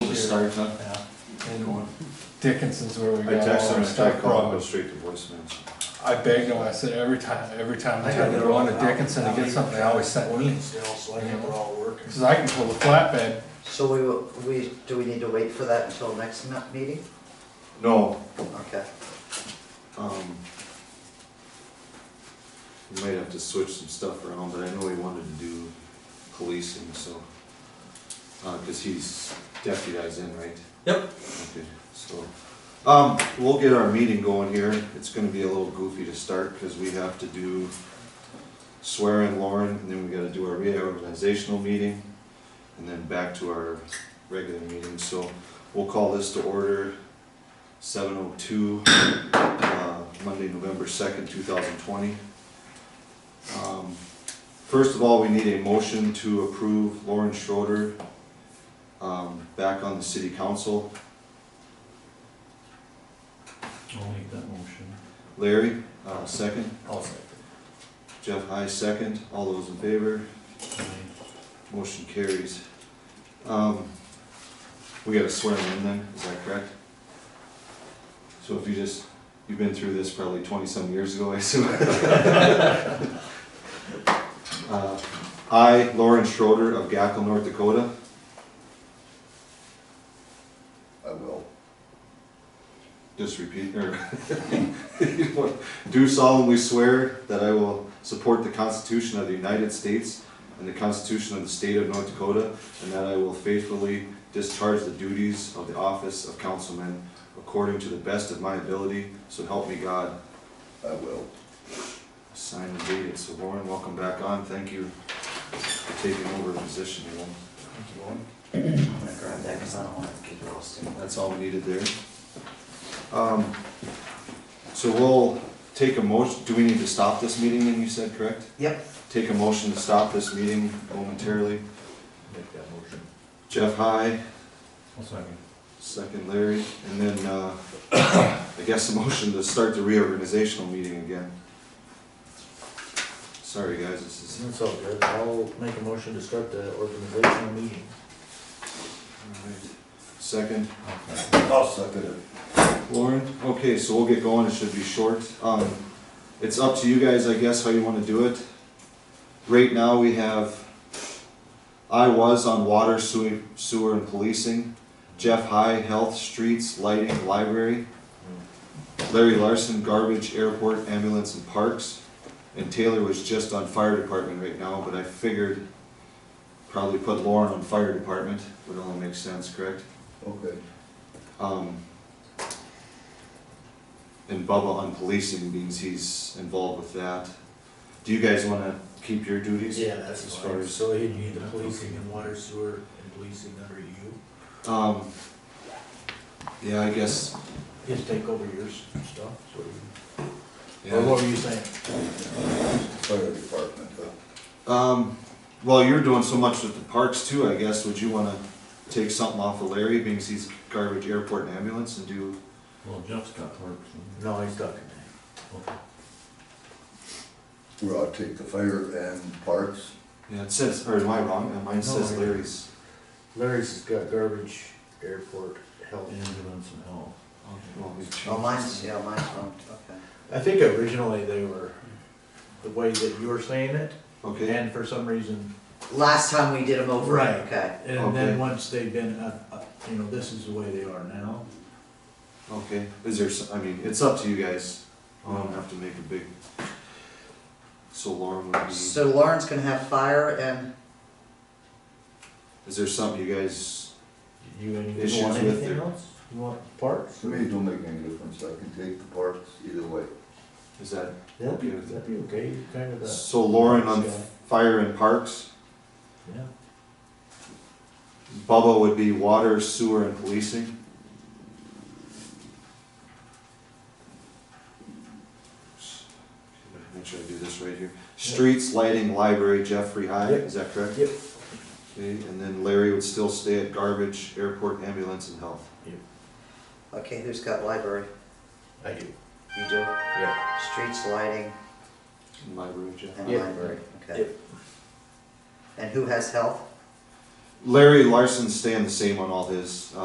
sorry, son. And Dickinson's where we I got all texted him, I our tried stuff calling, from. go straight to voicemail. I begged him, I said, every time, every time I I try got to it go on to all Dickinson to out. get something, I always sent me. Still, so I got it all working. Cause I can pull the flatbed, So we, will- we, do we need to wait for that until next me- meeting? No, Okay. um, we might have to switch some stuff around, but I know he wanted to do policing, so, uh, cause he's deputized in, right? Yep. Okay, so, um, we'll get our meeting going here, it's gonna be a little goofy to start, cause we have to do swear in Lauren, and then we gotta do our reorganizational meeting, and then back to our regular meeting, so we'll call this to order seven oh two, uh, Monday, November second, two thousand twenty. Um, First of all, we need a motion to approve Lauren Schroeder, um, back on the city council. I'll make that motion. Larry, uh, second. I'll second. Jeff High, second. All those in favor? Aye. Motion carries. Um, we gotta swear them in then, is that correct? So if you just, you've been through this probably twenty-some years ago, I assume. Uh, I, Lauren Schroeder of Gackel, North Dakota, I will. just repeat, or, do solemnly swear that I will support the Constitution of the United States and the Constitution of the State of North Dakota, and that I will faithfully discharge the duties of the office of councilman according to the best of my ability, so help me God. I will. Sign and date it. So Lauren, welcome back on. Thank you for taking over the position, you know. Thank you, Lauren. I'm gonna grab that because I don't want to get lost in that. That's all we needed there. Um, So we'll take a motion, do we need to stop this meeting then, you said, correct? Yep, Take a motion to stop this meeting momentarily. Make that motion. Jeff High, I'll second. second Larry, and then, uh, I guess a motion to start the reorganizational meeting again. Sorry, guys, this is, That's all good. I'll make a motion to start the organizational meeting. all right. second. I'll second it. Lauren, okay, so we'll get going, it should be short. Um, it's up to you guys, I guess, how you wanna do it. Right now, we have, I was on water, sewer, sewer and policing. Jeff High, health, streets, lighting, library. Larry Larson, garbage, airport, ambulance and parks. And Taylor was just on fire department right now, but I figured probably put Lauren on fire department, would only make sense, correct? Okay. Um, and Bubba on policing means he's involved with that. Do you guys wanna keep your duties? Yeah, that's As far fine. as- So you'd need the policing and water sewer and policing under you. Um, yeah, I guess, Just take over your s- stuff, so you, or yeah. what were you saying? Fire department, uh, huh? Um, well, you're doing so much with the parks too, I guess, would you wanna take something off of Larry, being he's garbage, airport and ambulance and do? Well, Jeff's got parks. and- No, he's talking to Okay. Where I'll take the fire and parks. Yeah, it says, or am I wrong? Uh, Mine says No, I- Larry's. me. Larry's has got garbage, airport, health. Ambulance and health. Well, we've changed. oh, mine's, yeah, mine's wrong, okay. I think originally they were, the way that you were saying it, Okay, and for some reason. Last time we did them over, Right. okay. And Okay. then once they've been, uh, uh, you know, this is the way they are now. okay. Is there, s- I mean, it's up to you guys. I don't have to make a big. So Lauren would be. So Lauren's gonna have fire and, Is there something you guys, You any- you Issues want with anything their- else? You want parts? To me, it don't make any difference. I can take the parks either way. is that, That'd be, Okay with that'd be okay, you kind of, uh, so Lauren on Yeah. fire and parks, yeah. Bubba would be water, sewer and policing? Make sure I do this right here. Streets, lighting, library, Jeffrey High, Yep. is that correct? Yep. Okay, and then Larry would still stay at garbage, airport, ambulance and health. okay, who's got library? I do. You do? Yeah. Streets, lighting, And Library, Jeff. and Yep. library, okay. Yep. And who has health? Larry Larson staying the same on all his, uh,